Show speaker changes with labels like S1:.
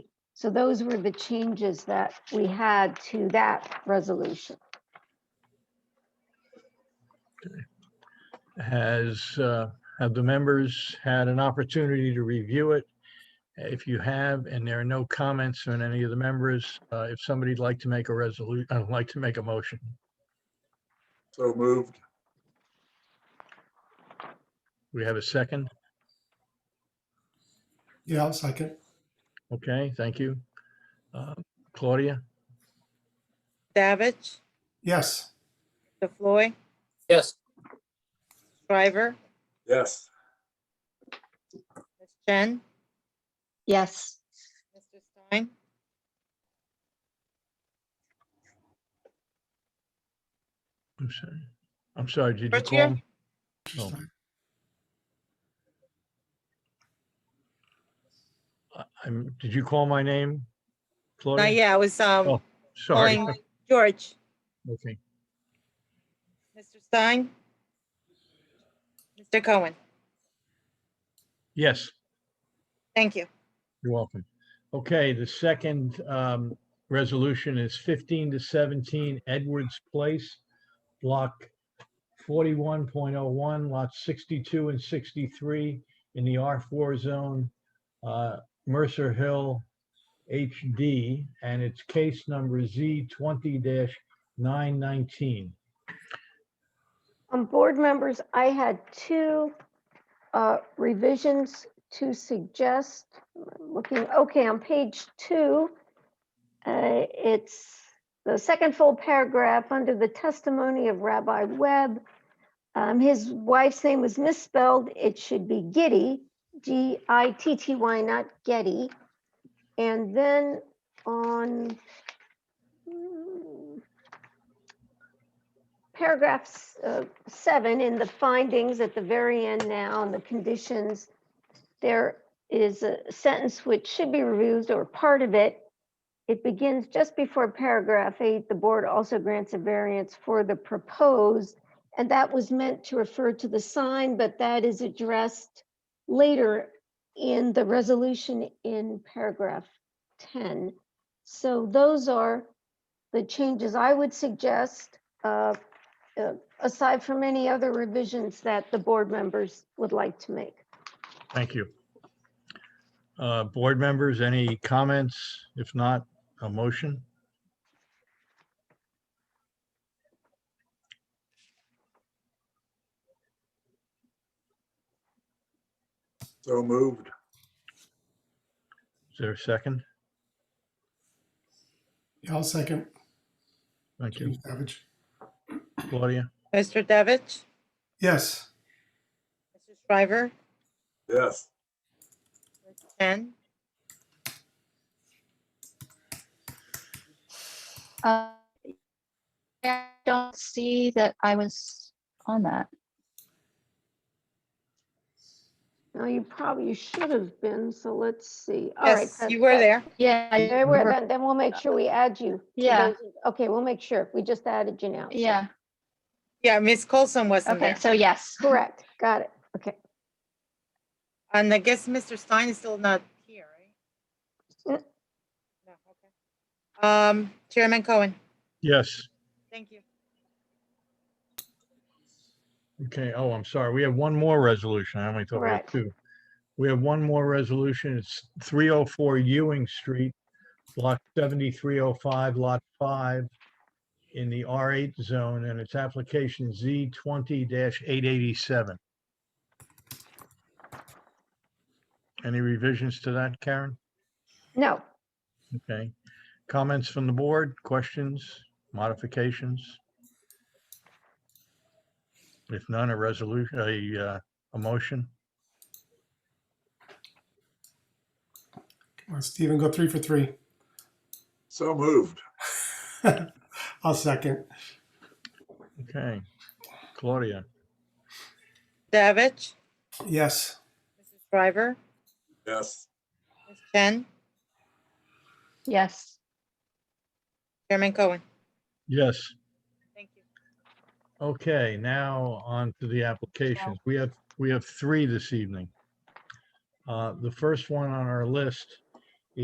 S1: So those were the changes that we had to that resolution.
S2: Has, uh, have the members had an opportunity to review it? If you have, and there are no comments on any of the members, uh, if somebody'd like to make a resolution, I'd like to make a motion.
S3: So moved.
S2: We have a second?
S4: Yeah, I'll second.
S2: Okay, thank you. Uh, Claudia,
S5: Davich,
S4: Yes,
S5: DeFloy,
S6: yes,
S5: Shriver,
S3: Yes.
S5: Ms. Jen,
S1: Yes,
S5: Mr. Stein,
S2: I'm sorry. I'm sorry, did you
S5: Right
S2: call?
S5: here.
S2: me? Oh. I- I'm, did you call my name? Claudia?
S5: not yet, I was, um,
S2: Oh, Sorry,
S5: calling George,
S2: okay,
S5: Mr. Stein, Mr. Cohen,
S2: yes.
S5: thank you.
S2: You're welcome. Okay, the second um, resolution is 15 to 17 Edwards Place, Block 41.01, lots 62 and 63 in the R4 zone, uh, Mercer Hill HD, and it's case number Z20-919.
S1: um, board members, I had two uh, revisions to suggest. Looking, okay, on page two, uh, it's the second full paragraph under the testimony of Rabbi Webb. Um, His wife's name was misspelled. It should be Giddy, G I T T Y, not Getty. And then on mm, paragraphs uh, seven in the findings at the very end now and the conditions, there is a sentence which should be removed or part of it. It begins just before paragraph eight, the board also grants a variance for the proposed. And that was meant to refer to the sign, but that is addressed later in the resolution in paragraph 10. So those are the changes I would suggest, uh, uh, aside from any other revisions that the board members would like to make.
S2: Thank you. Uh, Board members, any comments? If not, a motion?
S3: So moved.
S2: Is there a second?
S4: yeah, I'll second.
S2: Thank you.
S4: James Savage.
S2: Claudia?
S5: Mr. Davich,
S4: Yes,
S5: Mr. Shriver,
S3: Yes.
S5: Ms. Jen,
S7: Uh, I don't see that I was on that.
S1: Now, you probably should have been, so let's see. All right,
S5: yes,
S1: that-
S5: you were
S1: that-
S5: there,
S7: Yeah. I
S1: There we
S7: remember-
S1: Then then we'll make sure we add you. to
S7: Yeah.
S1: those- Okay, we'll make sure. We just added you now. so-
S7: Yeah,
S5: yeah, Ms. Colson wasn't
S7: okay,
S5: there.
S7: so yes.
S1: Correct, got it. Okay.
S5: And I guess Mr. Stein is still not here, right?
S1: Mm.
S5: No, okay. Um, Chairman Cohen,
S2: Yes.
S5: thank you.
S2: Okay. Oh, I'm sorry. We have one more resolution. I only thought we had
S1: Correct.
S2: two. We have one more resolution. It's 304 Ewing Street, Block 7305, Lot 5, in the R8 zone, and it's application Z20-887. Any revisions to that, Karen?
S1: No,
S2: Okay. Comments from the board, questions, modifications? If none, a resolution, a, uh, a motion?
S4: Come on, Stephen, go three for three.
S3: So moved.
S4: I'll second.
S2: Okay. Claudia,
S5: Davich,
S4: Yes,
S5: Mr. Shriver,
S3: Yes.
S5: Ms. Jen,
S7: Yes,
S5: Chairman Cohen,
S2: yes.
S5: thank you.
S2: Okay, now on to the applications. We have, we have three this evening. Uh, The first one on our list